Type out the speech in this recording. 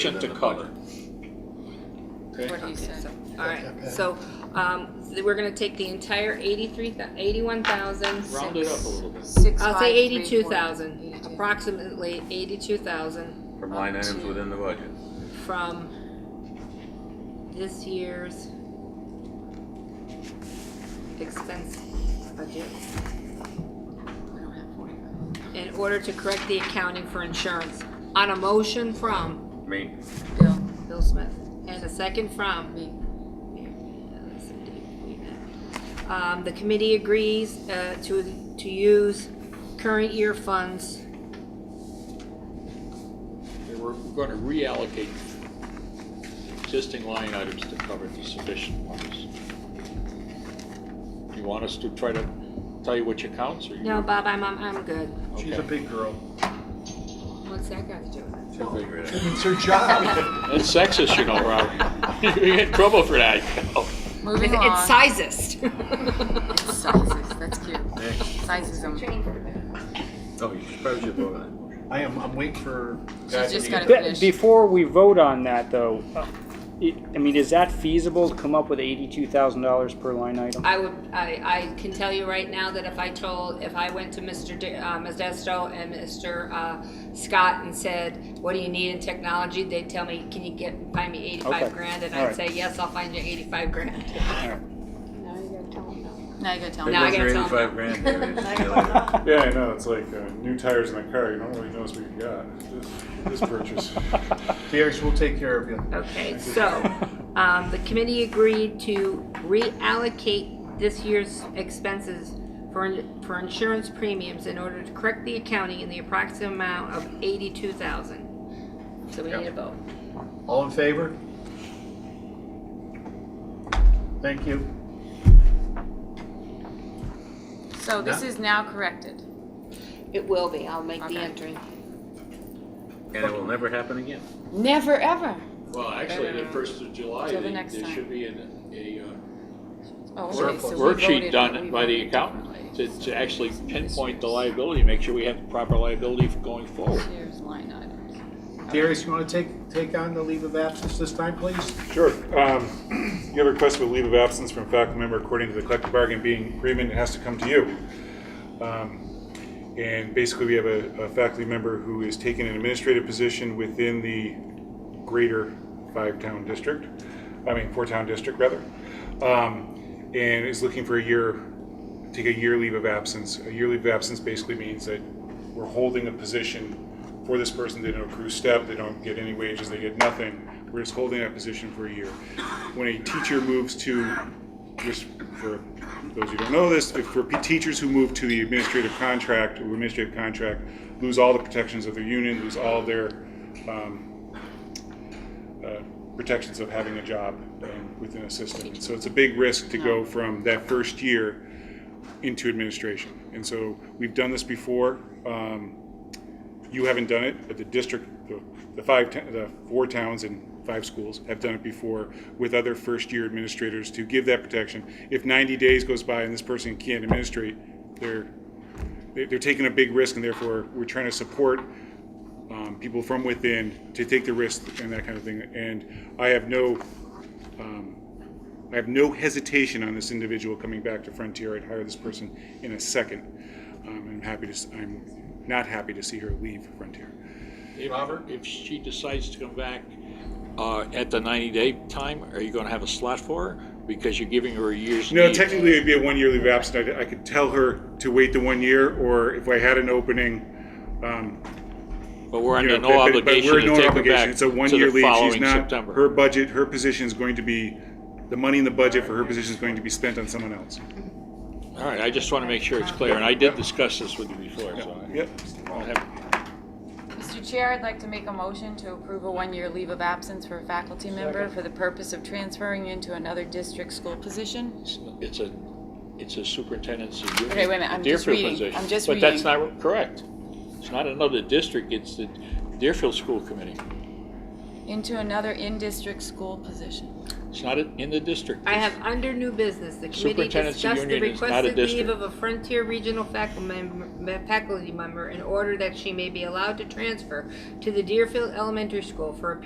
sufficient to cover. Okay? What he said. All right, so, um, th- we're gonna take the entire eighty-three, eighty-one thousand. Round it up a little bit. Six, I'll five, say three, eighty-two four. thousand, 82. approximately eighty-two thousand From line Up items to- within the budget. from this year's expense budget in order to correct the accounting for insurance on a motion from I mean, Bill, Bill Smith and a second from me. Um, the committee agrees, uh, to, to use current year funds. And We're going to reallocate existing line items to cover the sufficient ones. You want us to try to tell you which accounts or you? No, Bob, I'm, I'm, I'm good. She's a Okay. big girl. What's that got to do with Too big. It's her job. That's sexist, you know, Rob. You get in trouble for that. it? Moving It's on. sizest. It's Sizes, that's cute. Sizes, oh, you should probably should vote on it. I am, I'm waiting for. she's just gotta Be- finish. Before we vote on that, though, uh, it- I mean, is that feasible to come up with eighty-two thousand dollars per line item? I would, I, I can tell you right now that if I told, if I went to Mr. D- uh, Modesto and Mr. uh, Scott and said, what do you need in technology? They'd tell me, can you get, find me eighty-five Okay. grand? And All I'd right. say, yes, I'll find you eighty-five grand. Now you gotta tell There me. Now I goes gotta your tell 'em. eighty-five grand there. It's still- Yeah, I know. It's like uh, new tires in a car. You don't really know what you got. This, this purchase. Beers, we'll take care of you. Okay, so, um, the committee agreed to reallocate this year's expenses for, for insurance premiums in order to correct the accounting in the approximate amount of eighty-two thousand. So we need a vote. All in favor? Thank you. So this No. is now corrected. It will be, I'll make Okay. the entry. And it will never happen again. Never, ever. Well, actually, the first of July, Till the they- next there time. should be an- a uh, Oh, okay, Work- so we worksheet voted, but we done by the voted accountant differently. to to actually pinpoint the liability, make sure we have the proper liability for going forward. Here's line items. Darius, you wanna take, take on the leave of absence this time, please? Sure. Um, you have a request for leave of absence from a faculty member according to the collective bargaining being agreement. It has to come to you. Um, and basically, we have a, a faculty member who is taking an administrative position within the greater five-town district. I mean, four-town district rather, um, and is looking for a year, take a year leave of absence. A year leave of absence basically means that we're holding a position for this person. They don't accrue step, they don't get any wages, they get nothing. We're just holding that position for a year. When a teacher moves to, just for those who don't know this, if for teachers who move to the administrative contract or administrative contract, lose all the protections of their union, lose all their um, uh, protections of having a job um, within a system. So it's a big risk to go from that first year into administration. And so we've done this before. Um, You haven't done it, but the district, the- the five, ta- the four towns and five schools have done it before with other first-year administrators to give that protection. If 90 days goes by and this person can't administrate, they're, they're they're taking a big risk and therefore we're trying to support um, people from within to take the risk and that kind of thing. And I have no, um, I have no hesitation on this individual coming back to Frontier. I'd hire this person in a second. Um, I'm happy to, s- I'm not happy to see her leave Frontier. If- If she decides to come back uh, at the 90-day time, are you going to have a slot for her? Because you're giving her a year's No, leave. technically it'd be a one-year leave of absence. I, I could tell her to wait the one year, or if I had an opening, um, But we're you under know, no but- but- but obligation we're to no take her obligation. back It's a to one-year the leave. She's following not, her September. budget, her position is going to be, the money in the budget for her position is going to be spent on someone else. All right, I just want to make sure it's clear, and I did discuss this with you before, so. I- Yep. I have- Mr. Chair, I'd like to make a motion to approve a one-year leave of absence for a faculty member for the purpose of transferring into another district school position. It's a, it's a superintendent's union. Okay, wait a minute, I'm just Deerfield reading. position. I'm just But that's reading. not correct. It's not another district, it's the Deerfield School Committee. Into another in-district school position. It's not in the district. I have under new business, the committee Superintendent's discussed the union is not a requested leave district. of a Frontier Regional faculty member, faculty member in order that she may be allowed to transfer to the Deerfield Elementary School for a